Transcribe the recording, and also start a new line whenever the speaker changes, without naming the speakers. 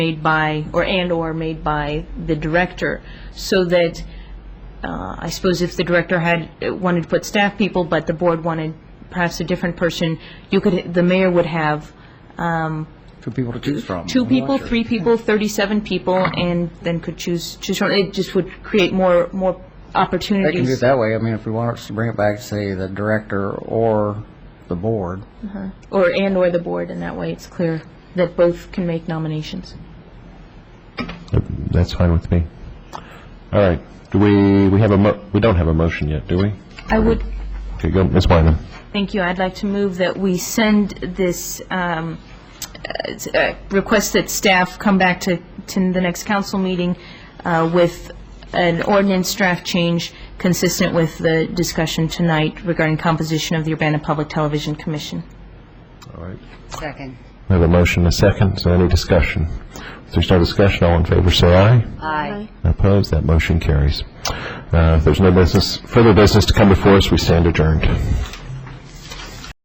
made by, or and/or made by the director, so that, uh, I suppose if the director had, wanted to put staff people, but the board wanted perhaps a different person, you could, the mayor would have um,
for people to choose from.
two people, three people, 37 people, and then could choose, choose from, it just would create more, more
They can do
opportunities.
it that way. I mean, if we want us to bring it back, say, the director or the board.
Or, and/or the board, and that way it's clear that both can make nominations.
Yep, That's fine with me. All right, do we, we have a, mo- we don't have a motion yet, do we?
I would,
Okay, go, Ms. Wyman.
Thank you. I'd like to move that we send this um, uh, s- uh, request that staff come back to, to the next council meeting uh, with an ordinance draft change consistent with the discussion tonight regarding composition of the Urbana Public Television Commission.
All right.
Second.
We have a motion, a second, so any discussion? If there's no discussion, all in favor say aye.
Aye.
Opposed, that motion carries. Uh, If there's no business, further business to come before us, we stand adjourned.